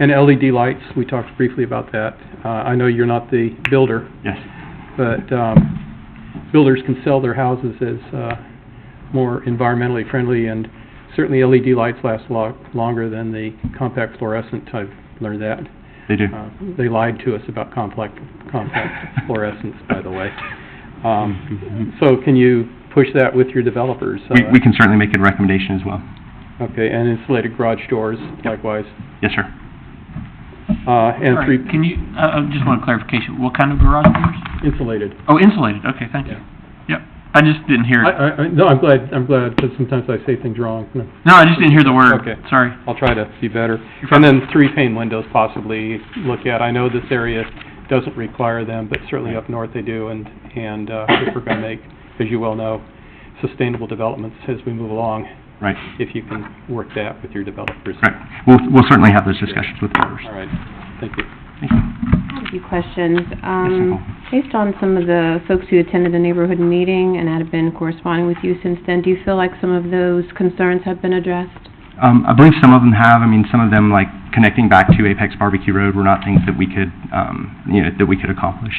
And LED lights, we talked briefly about that. Uh, I know you're not the builder, Yes. but, um, builders can sell their houses as, uh, more environmentally friendly, and certainly LED lights last a lot longer than the compact fluorescent, I've learned that. They do. Uh, They lied to us about complex, compact fluorescence, by the way. Um, so can you push that with your developers? We, uh, we can certainly make a recommendation as well. Okay, and insulated garage doors likewise, Yes, sir. uh, and All right, three Can you, uh, uh, just want clarification, what kind of garage doors? insulated. Oh, insulated, okay, thank you. Yep, I just didn't I, hear, it. I, I- no, I'm glad, I'm glad, because sometimes I say things wrong. No, no, I just didn't hear the word, Okay. sorry. I'll try to be better. And then three pane windows possibly look at. I know this area doesn't require them, but certainly up north they do, and, and, uh, if we're gonna make, as you well know, sustainable developments as we move along, Right, if you can work that with your developers. correct. We'll, we'll certainly have those discussions with the builders. All right, thank you. Thank you. I have a few questions. Nicole. Um, based on some of the folks who attended the neighborhood meeting and have been corresponding with you since then, do you feel like some of those concerns have been addressed? Um, I believe some of them have, I mean, some of them, like, connecting back to Apex Barbecue Road were not things that we could, um, you know, that we could accomplish.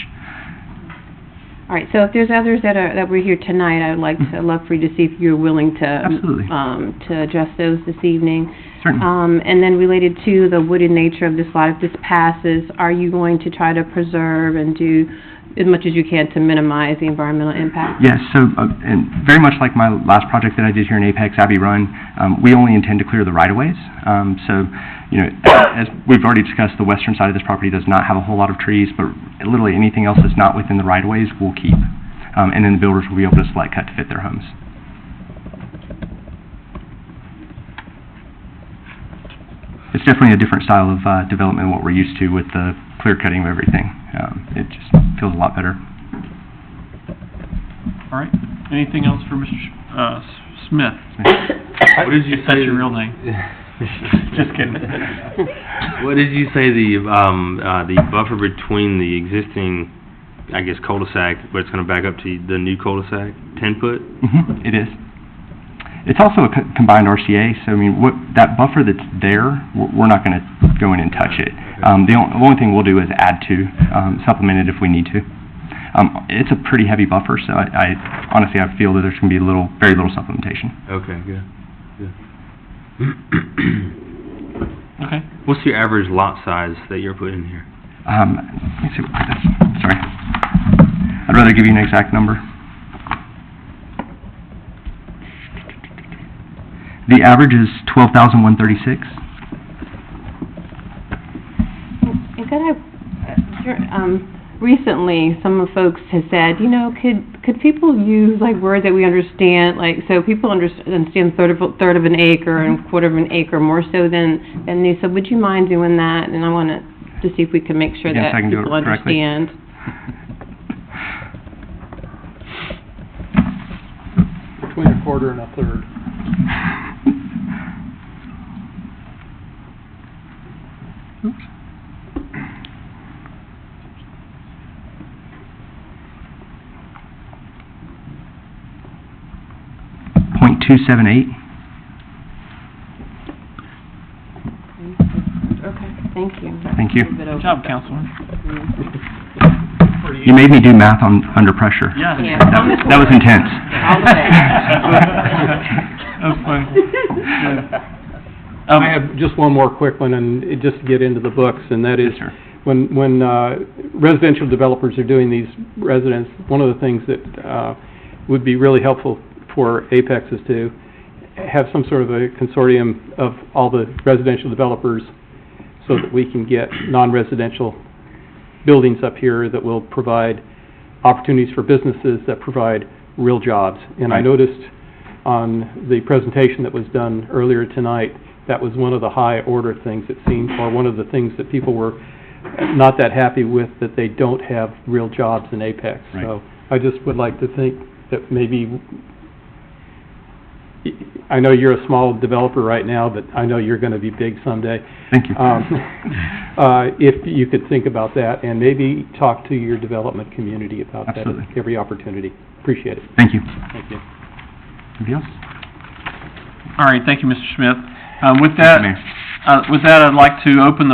All right, so if there's others that are, that were here tonight, I would like to, love for you to see if you're willing to... Mm-hmm. Absolutely. Mm-hmm. Um, to address those this evening. Certainly. Um, and then related to the wooded nature of this lot, if this passes, are you going to try to preserve and do as much as you can to minimize the environmental impact? Yes, so, uh, and very much like my last project that I did here in Apex, Abbey Run, um, we only intend to clear the right-of-ways. Um, so, you know, as we've already discussed, the western side of this property does not have a whole lot of trees, but literally anything else that's not within the right-of-ways, we'll keep. Um, and then the builders will be able to select cut to fit their homes. It's definitely a different style of, uh, development than what we're used to with the clear cutting of everything. Um, it just feels a lot better. All right, anything else for Mr. Sh- uh, S- Smith? What did you say? That's your real name. Just kidding. What did you say the, um, uh, the buffer between the existing, I guess cul-de-sac, but it's gonna back up to the new cul-de-sac, ten foot? Mhm, It is. It's also a co- combined RCA, so I mean, what, that buffer that's there, we're we're not going to go in and touch it. Um, The on- the only thing we'll do is add to, um, supplement it if we need to. Um, It's a pretty heavy buffer, so I- I, honestly, I feel that there's going to be little, very little supplementation. Okay, good, good. Okay, What's your average lot size that you're putting in here? Um, Let me see, what that's, sorry. I'd rather give you an exact number. The average is 12,136. And could I, uh, dur- um, recently, some of folks have said, you know, could, could people use like words that we understand, like, so people under- understand third of, a- third of an acre and quarter of an acre more so than, than new, so would you mind doing that? And I want to, to see if we can make sure Yes, that I can do it people correctly. understand. Between a quarter and a third. Point two seven eight. Okay, thank you. Thank you. good job, Counselor. You made me do math on, under pressure. Yeah. Yeah. That was, that was intense. I'll That was funny. Um, I have just one more quick one, and it- just to get into the books, and that is, Yes, sir. when, when uh, residential developers are doing these residents, one of the things that uh, would be really helpful for Apex is to have some sort of a consortium of all the residential developers so that we can get non-residential buildings up here that will provide opportunities for businesses that provide real jobs. And I Right. noticed on the presentation that was done earlier tonight, that was one of the high-order things it seemed, or one of the things that people were not that happy with, that they don't have real jobs in Apex. Right. So I just would like to think that maybe, I know you're a small developer right now, but I know you're going to be big someday. Thank you. Um, uh, If you could think about that, and maybe talk to your development community about that. Absolutely. Every opportunity. Appreciate it. Thank you. uh, Thank you. Anybody else? All right, thank you, Mr. Smith. Uh, with Thank you, that, Mayor. uh, with that, I'd like to open the